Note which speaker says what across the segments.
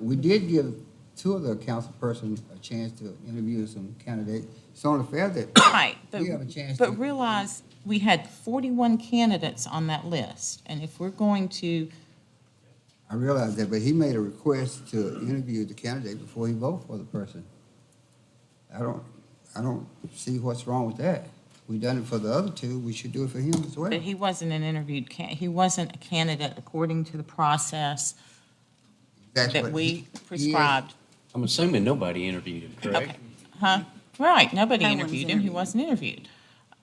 Speaker 1: We did give two of the council persons a chance to interview some candidates. It's only fair that,
Speaker 2: Right, but,
Speaker 1: We have a chance to-
Speaker 2: but realize, we had forty-one candidates on that list, and if we're going to,
Speaker 1: I realize that, but he made a request to interview the candidate before he voted for the person. I don't, I don't see what's wrong with that. We done it for the other two, we should do it for him as well.
Speaker 2: but he wasn't an interviewed can, he wasn't a candidate according to the process
Speaker 1: That's
Speaker 2: that
Speaker 1: what
Speaker 2: we
Speaker 1: he-
Speaker 2: prescribed.
Speaker 3: I'm assuming nobody interviewed him, correct?
Speaker 2: Okay, Huh? Right, nobody
Speaker 4: No one's
Speaker 2: interviewed him, he
Speaker 4: interviewed.
Speaker 2: wasn't interviewed.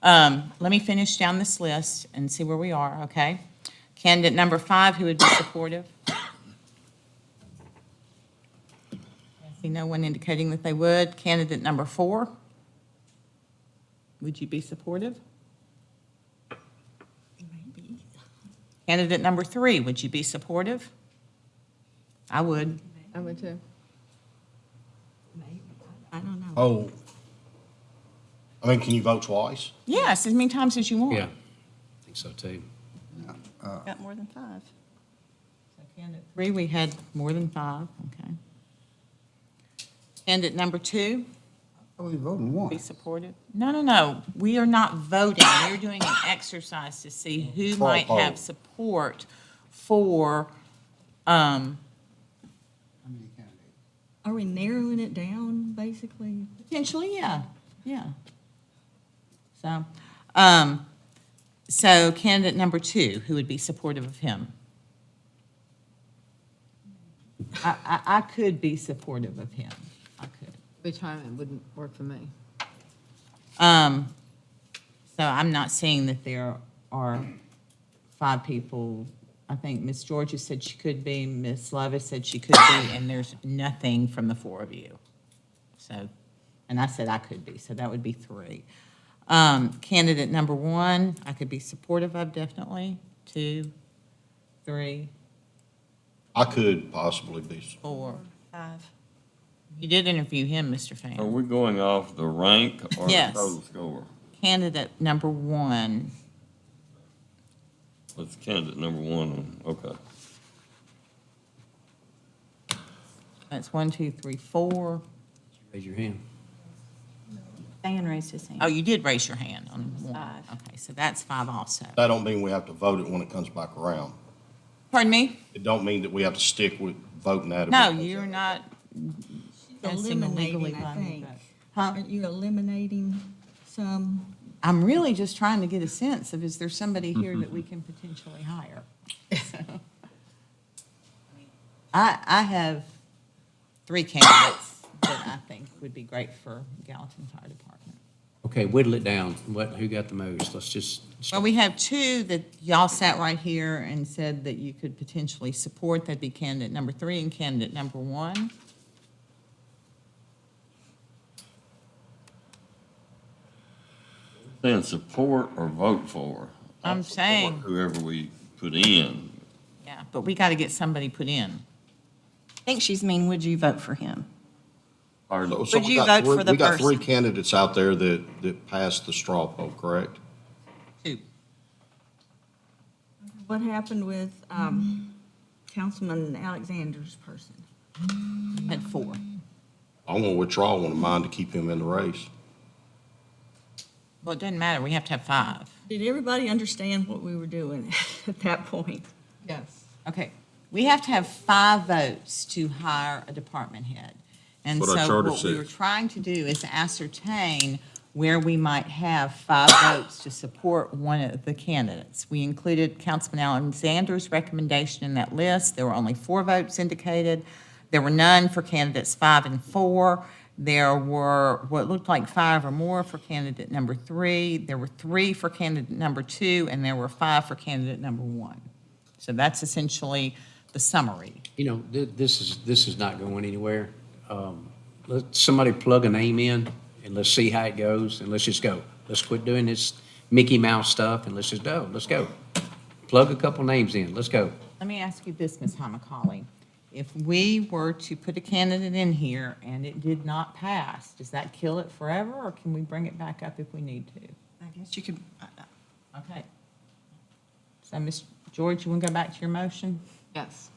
Speaker 2: Um, let me finish down this list and see where we are, okay? Candidate number five, who would be supportive? I See no one indicating that they would. Candidate number four? Would you be supportive?
Speaker 4: Maybe.
Speaker 2: Candidate number three, would you be supportive? I would.
Speaker 5: I would too.
Speaker 4: Maybe. I don't know.
Speaker 6: Oh. I mean, can you vote twice?
Speaker 2: Yes, as many times as you want.
Speaker 3: Yeah, I think so too.
Speaker 4: Got more than five.
Speaker 2: Three, we had more than five, okay. Candidate number two?
Speaker 1: I was Oh, voting
Speaker 2: Be
Speaker 1: one.
Speaker 2: supportive? No, no, no, we are not voting, we're doing an exercise to see who
Speaker 6: Straw
Speaker 2: might
Speaker 6: poll.
Speaker 2: have support for, um,
Speaker 1: How many candidates?
Speaker 4: Are we narrowing it down, basically?
Speaker 2: potentially, yeah, yeah. So, um, so candidate number two, who would be supportive of him? I, I, I could be supportive of him, I could.
Speaker 5: Which time it wouldn't work for me.
Speaker 2: Um, so I'm not saying that there are five people. I think Miss Georgia said she could be, Miss Levis said she could be, and there's nothing from the four of you. So, and I said I could be, so that would be three. Um, candidate number one, I could be supportive of definitely, two, three,
Speaker 6: I could possibly be. s-
Speaker 2: four.
Speaker 4: Five.
Speaker 2: You did interview him, Mr. Fan.
Speaker 7: Are we going off the rank or the
Speaker 2: Yes.
Speaker 7: total score?
Speaker 2: Candidate number one,
Speaker 7: Let's candidate number one, okay.
Speaker 2: that's one, two, three, four.
Speaker 3: Raise your hand.
Speaker 4: Dan raised his
Speaker 2: Oh,
Speaker 4: hand.
Speaker 2: you did raise your hand on one.
Speaker 4: Five.
Speaker 2: Okay, so that's five also.
Speaker 6: That don't mean we have to vote it when it comes back around.
Speaker 2: Pardon me?
Speaker 6: It don't mean that we have to stick with voting that. if it
Speaker 2: No,
Speaker 6: comes
Speaker 2: you're
Speaker 6: up.
Speaker 2: not. That's a legally
Speaker 4: Eliminating, I
Speaker 2: binding
Speaker 4: think.
Speaker 2: vote.
Speaker 4: Aren't you eliminating some?
Speaker 2: I'm really just trying to get a sense of, is there somebody here that we can potentially hire? So, I, I have three candidates that I think would be great for Gallatin Fire Department.
Speaker 3: Okay, whittle it down. What, who got the most? Let's just,
Speaker 2: Well, we have two that y'all sat right here and said that you could potentially support. That'd be candidate number three and candidate number one.
Speaker 7: Then support or vote for? I
Speaker 2: I'm
Speaker 7: support
Speaker 2: saying-
Speaker 7: Whoever we put in.
Speaker 2: Yeah, but we got to get somebody put in.
Speaker 4: I think she's mean, would you vote for
Speaker 6: So-
Speaker 4: him?
Speaker 7: Pardon?
Speaker 6: so
Speaker 4: Would
Speaker 6: we
Speaker 4: you
Speaker 6: got
Speaker 4: vote
Speaker 6: three-
Speaker 4: for the
Speaker 6: We got three
Speaker 4: person?
Speaker 6: candidates out there that, that passed the straw poll, correct?
Speaker 2: Two.
Speaker 4: What happened with um, Councilman Alexander's person?
Speaker 2: Had four.
Speaker 6: I'm gonna withdraw one of mine to keep him in the race.
Speaker 2: Well, it doesn't matter, we have to have five.
Speaker 4: Did everybody understand what we were doing at that point?
Speaker 5: Yes.
Speaker 2: Okay, we have to have five votes to hire a department head. And
Speaker 6: That's what our
Speaker 2: so
Speaker 6: charter
Speaker 2: what we
Speaker 6: says.
Speaker 2: were trying to do is ascertain where we might have five votes to support one of the candidates. We included Councilman Alexander's recommendation in that list. There were only four votes indicated. There were none for candidates five and four. There were what looked like five or more for candidate number three. There were three for candidate number two, and there were five for candidate number one. So that's essentially the summary.
Speaker 3: you know, th- this is, this is not going anywhere. Um, Let somebody plug a name in and let's see how it goes and let's just go. Let's quit doing this Mickey Mouse stuff and let's just go. Let's go. Plug a couple names in. Let's go.
Speaker 2: Let me ask you this, Ms. Hamacali. If we were to put a candidate in here and it did not pass, does that kill it forever, or can we bring it back up if we need to?
Speaker 4: I guess you could, uh, I- I-
Speaker 2: Okay. So, Ms. George, you want to go back to your motion?
Speaker 5: Yes.